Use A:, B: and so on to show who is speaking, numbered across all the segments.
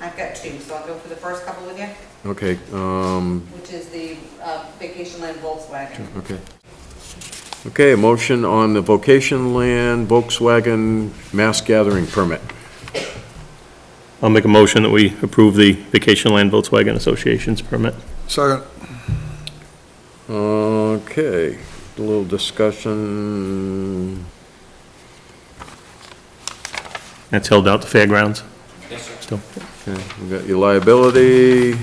A: I've got two, so I'll go for the first couple with you,
B: Okay, um,
A: which is the uh, vacation land Volkswagen.
B: okay. Okay, a motion on the vocation land Volkswagen mass gathering permit.
C: I'll make a motion that we approve the Vacation Land Volkswagen Association's permit.
D: Second,
B: Okay, a little discussion.
C: That's held out to fairgrounds. Still.
B: Okay, we got your liability.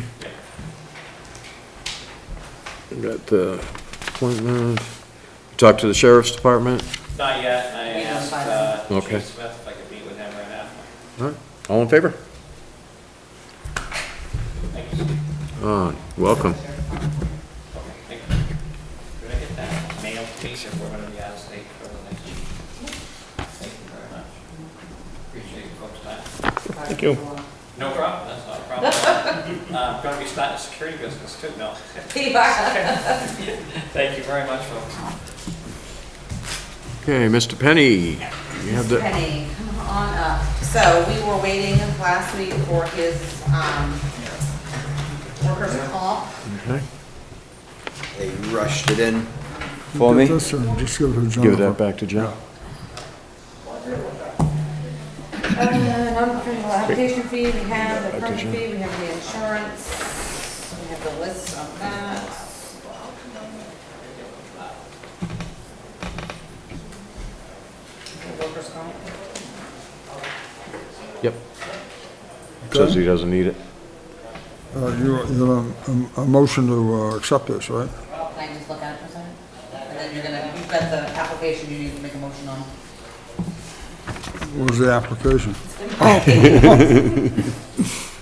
B: We got the appointment. Talk to the sheriff's department.
E: Not yet, I
A: We don't
E: asked
A: find
E: uh,
B: them. Okay.
E: Chief Smith if I could meet with him right after.
B: All right, All in favor?
E: Thank you.
B: Ah, welcome.
E: Okay, thank you. Could I get that mail, please, if we're gonna be out of state for the next week? Thank you very much. Appreciate your folks' time.
A: Thank
C: you.
E: No problem, that's not a problem. Uh, I'm gonna be starting a security business too, no. Thank you very much, folks.
B: Okay, Mr. Penny, you have the,
A: Penny, come on up. So we were waiting last week for his um, workers' comp. Oh,
B: okay,
F: They rushed it in for me.
D: Get this and just give it to
B: give that
D: Jonathan.
B: back to John.
A: Uh, non-refundable application fee, we have the permit fee, we have the insurance, we have the list of that. The workers' comp.
B: Yep. Says he doesn't need it.
D: Uh, you, you know, a, a motion to uh, accept this, right?
A: Can I just look at it for a second? And then you're gonna, you've got the application you need to make a motion on.
D: What was the application?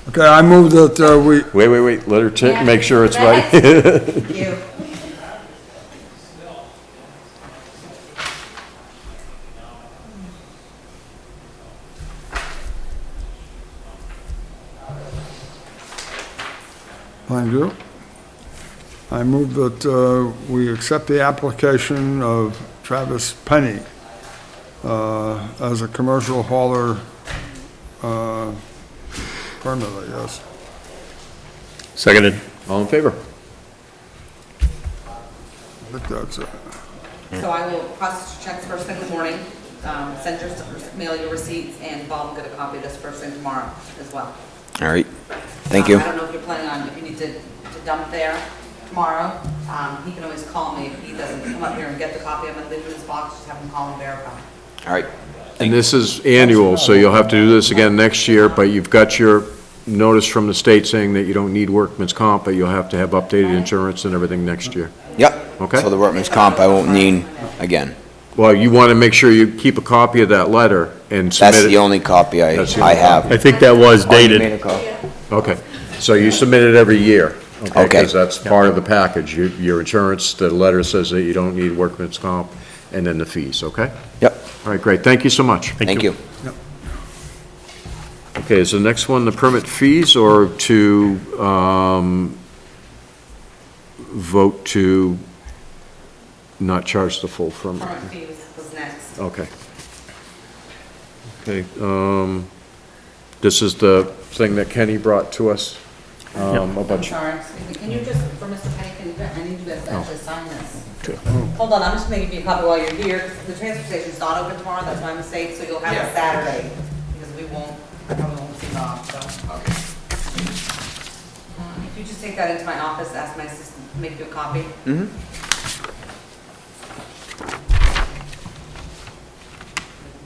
D: Okay, I move that uh, we,
B: Wait, wait, wait, let her check, make sure it's right.
A: Thank you.
D: Thank you. I move that uh, we accept the application of Travis Penny uh, as a commercial hauler uh, permit, I guess.
C: Seconded.
B: All in favor?
D: I think that's it.
A: So I will process your checks first thing in the morning, um, send your, mail your receipts, and Bob will get a copy of this first thing tomorrow as well.
F: All right, thank you.
A: Um, I don't know if you're planning on, if you need to to dump there tomorrow, um, he can always call me if he doesn't come up here and get the copy of it, leave it in his box, just have him call and verify.
F: All right,
B: And this is annual, so you'll have to do this again next year, but you've got your notice from the state saying that you don't need workman's comp, but you'll have to have updated insurance and everything next year.
F: yep.
B: Okay.
F: So the workman's comp I won't need again.
B: Well, you want to make sure you keep a copy of that letter and submit it.
F: That's the only copy I,
B: That's the
F: I
B: only
F: have.
C: I think that was
F: Oh, you made
C: dated.
F: a copy.
B: Okay, so you submit it every year?
F: Okay.
B: Because that's part of the package, your, your insurance, the letter says that you don't need workman's comp, and then the fees, okay?
F: Yep,
B: All right, great, thank you so much.
F: thank you.
B: Okay, is the next one the permit fees or to, um, vote to not charge the full permit?
A: Permit fee was- was next.
B: Okay. Okay, um, this is the thing that Kenny brought to us, um, a
A: I'm
B: bunch.
A: sorry, excuse me, can you just, for Mr. Penny, can, you- I need you guys to actually sign this. Hold on, I'm just making you a copy while you're here, 'cause the transfer station's not open tomorrow, that's my mistake, so you'll have it Saturday, because we won't, I probably won't see Bob, so. Um, If you just take that into my office, ask my assistant to make you a copy.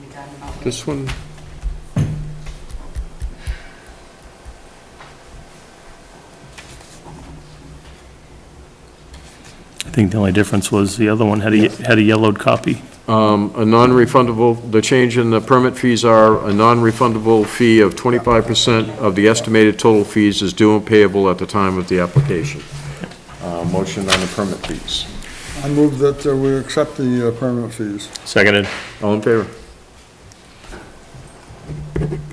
A: Mm-hmm.
B: This one,
C: I think the only difference was the other one had a, had a yellowed copy.
B: um, a non-refundable, the change in the permit fees are a non-refundable fee of twenty-five percent of the estimated total fees is due and payable at the time of the application. Uh, motion on the permit fees.
D: I move that uh, we accept the uh, permit fees.
C: Seconded.
B: All in favor?